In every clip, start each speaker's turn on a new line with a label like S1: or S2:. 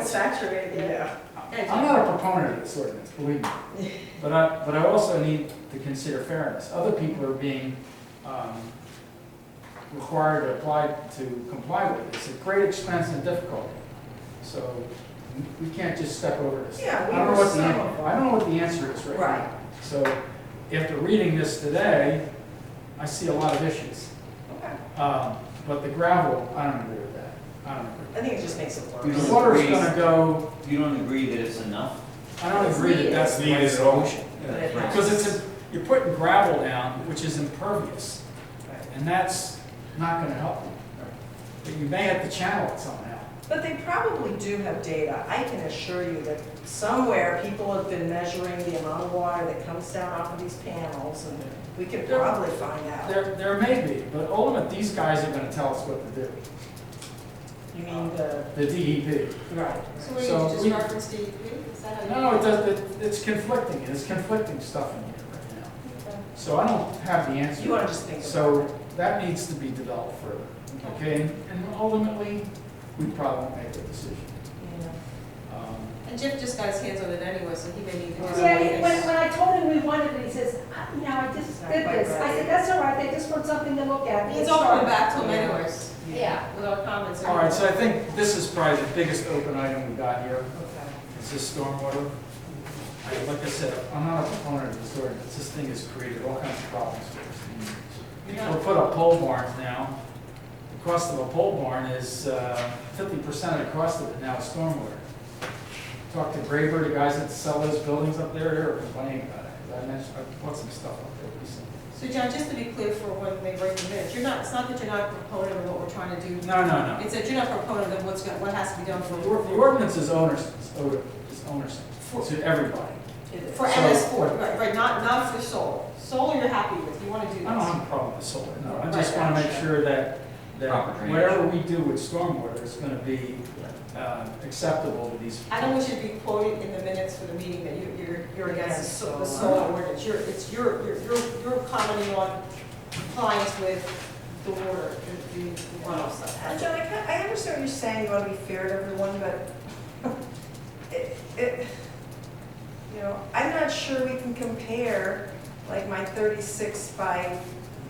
S1: saturated yet.
S2: Yeah.
S1: Yeah,
S2: I'm not a proponent of this ordinance, believe me. But I, but I also need to consider fairness. Other people are being, um, required to apply, to comply with it. It's a great expense and difficulty. So we can't just step over this.
S1: Yeah, we
S2: I don't know
S1: were
S2: what the
S1: some
S2: an-
S1: of them.
S2: I don't know what the answer is right now.
S1: Right.
S2: So after reading this today, I see a lot of issues.
S1: Okay.
S2: Um, but the gravel, I don't agree with that. I don't agree.
S1: I think it just makes it
S3: You
S1: worse.
S3: don't
S2: The water's
S3: agree.
S2: gonna go
S3: You don't agree that it's enough?
S2: I don't
S1: It's
S2: agree that
S1: needed.
S2: that's the right
S4: Needed at all.
S2: solution.
S1: But it
S3: Right.
S2: Because it's,
S1: helps.
S2: a- you're putting gravel down, which is impervious, and that's not gonna help you. But you may have to channel it somehow.
S1: But they probably do have data. I can assure you that somewhere people have been measuring the amount of water that comes down off of these panels and we could probably find out.
S2: There, there may be, but ultimately, these guys are gonna tell us what to do, Uh,
S1: You mean the, uh,
S2: the E DEP.
S1: right.
S5: So we
S2: So
S5: just
S2: we-
S5: reference DEP, is that how you?
S2: No, it does, it- it's conflicting, it's conflicting stuff in here right now. So I don't have the answer.
S1: You want to just think about
S2: So
S1: it.
S2: that needs to be developed further, okay? And ultimately, we probably won't make the decision.
S1: Yeah.
S2: Um,
S5: And Jeff just got his hands on it anyway, so he may need to. do
S6: Yeah,
S5: something.
S6: he- when, when I told him we wanted it, he says, "I- you know, I just did this. I said, that's all right, they just want something to look at.
S5: It's all coming back to him
S1: Yeah.
S5: anyways.
S6: Yeah.
S5: With our comments.
S2: All right, so I think this is probably the biggest open item we got here,
S1: Okay.
S2: is this stormwater. I- Like I said, I'm not a proponent of this ordinance, this thing has created all kinds of problems for us. People put up pole barns now, the cost of a pole barn is uh, fifty percent of the cost of it now is stormwater. Talked to Graber, the guys that sell those buildings up there, they were complaining about it, 'cause I mentioned, I bought some stuff up there recently.
S5: So John, just to be clear for when they break the minutes, you're not, it's not that you're not a proponent of what we're trying to do.
S2: No, no, no.
S5: It's that you're not a proponent of what's, go- what has to be done for.
S2: The or- the ordinance is onerous, is oner- is onerous to everybody.
S1: It is.
S5: For
S2: So-
S5: MS four, right, right, not, not for solar. Solar you're happy with, you wanna do this.
S2: I don't have a problem with solar, no, I just wanna make sure that,
S3: Proper
S2: that
S3: drainage.
S2: whatever we do with stormwater is gonna be, uh, acceptable to these.
S5: I don't want you to be quoted in the minutes for the meeting that you- you're, you're against the so- the solar ordinance. You're, it's, you're, you're, you're- you're commenting on compliance with the water, the- the runoff
S1: And
S5: stuff.
S1: John, I kind- I understand what you're saying, you want to be fair to everyone, but it, it, you know, I'm not sure we can compare like my thirty-six by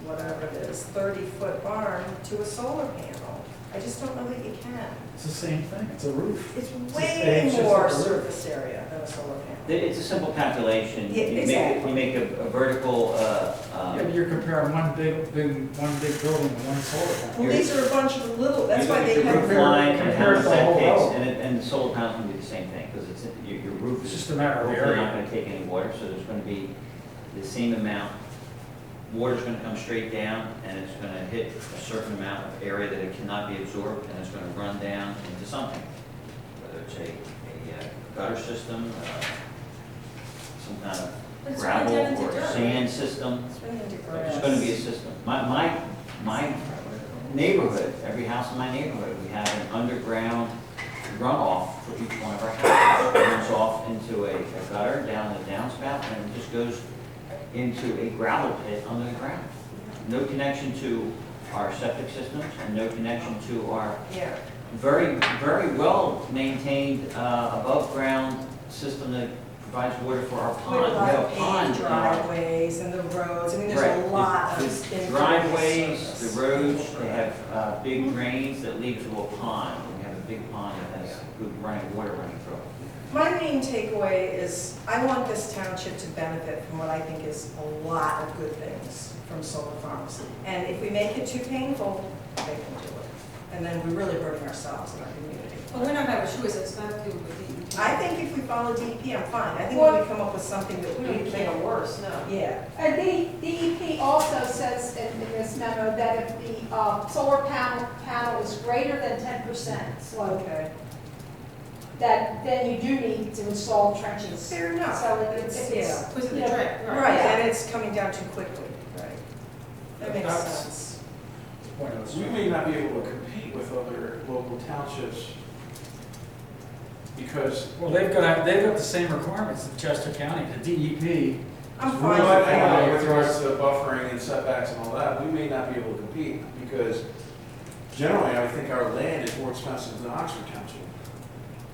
S1: whatever it is, thirty-foot barn to a solar panel. I just don't know that you can.
S2: It's the same thing, it's a roof.
S1: It's
S2: It's
S1: way
S2: just- it's just
S1: more
S2: like a roof.
S1: surface area than a solar panel.
S3: Th- It's a simple calculation.
S1: Yeah,
S3: You make-
S1: exactly.
S3: You make a a vertical, uh, um,
S2: Yeah, but you're comparing one big, big, one big building to one solar panel.
S1: Well, these are a bunch of little, that's why they
S3: You look at
S1: have.
S3: your roof line and how
S2: compared
S3: the
S2: to the whole
S3: setbacks,
S2: road.
S3: and it- and the solar panel can do the same thing, because it's, your your roof
S2: It's
S3: is
S2: just a matter of
S3: hopefully
S2: area.
S3: not gonna take any water, so there's gonna be the same amount. Water's gonna come straight down, and it's gonna hit a certain amount of area that it cannot be absorbed, and it's gonna run down into something. Whether it's a, a uh, gutter system, uh, some kind
S5: But
S3: of
S5: it's gonna
S3: gravel
S5: turn into
S3: or
S5: dirt.
S3: sand system.
S1: It's gonna be
S3: There's gonna be a system. My, my, my neighborhood, every house in my neighborhood, we have an underground runoff for each one of our houses. It Runs off into a a gutter, down the downspout, and it just goes into a gravel pit under the ground. No connection to our septic systems and no connection to our
S1: Yeah.
S3: very, very well-maintained, uh, above-ground system that provides water for our
S1: We have
S3: pond.
S1: a
S3: We
S1: lot
S3: have a
S1: of
S3: pond
S1: paved
S3: in our-
S1: driveways and the roads, I mean,
S3: Right.
S1: there's a lot
S3: The-
S1: of.
S3: the
S1: impervious
S3: Driveways,
S1: surface.
S3: the roads, they have uh, big drains that lead to a pond. We have a big pond that has good running water running through it.
S1: My main takeaway is, I want this township to benefit from what I think is a lot of good things from solar farms. And if we make it too painful, they can do it. And then we really burden ourselves and our community.
S5: But we're not gonna have a choice, it's not to do with the.
S1: I think if we follow DEP, I'm fine. I think if
S6: Well-
S1: we come up with something that
S5: We don't
S1: we
S5: make it
S1: can.
S5: worse, no.
S1: Yeah,
S6: Uh, D- DEP also says in in this memo that if the uh, solar panel, panel is greater than 10% slope,
S1: okay.
S6: that then you do need to install trenches.
S1: Fair enough.
S6: So it's, it's,
S1: Yeah.
S5: Was it the
S6: Yeah.
S5: drip?
S1: Right, and it's coming down too quickly, right? That makes
S2: That's-
S1: sense.
S2: Point of
S4: We
S2: view.
S4: may not be able to compete with other local townships because.
S2: Well, they've got, they've got the same requirements of Chester County, the E DEP.
S1: I'm
S4: Well,
S1: fine with
S4: I-
S1: that.
S4: I know, With regards to buffering and setbacks and all that, we may not be able to compete because generally, I think our land is more expensive than Oxford Township.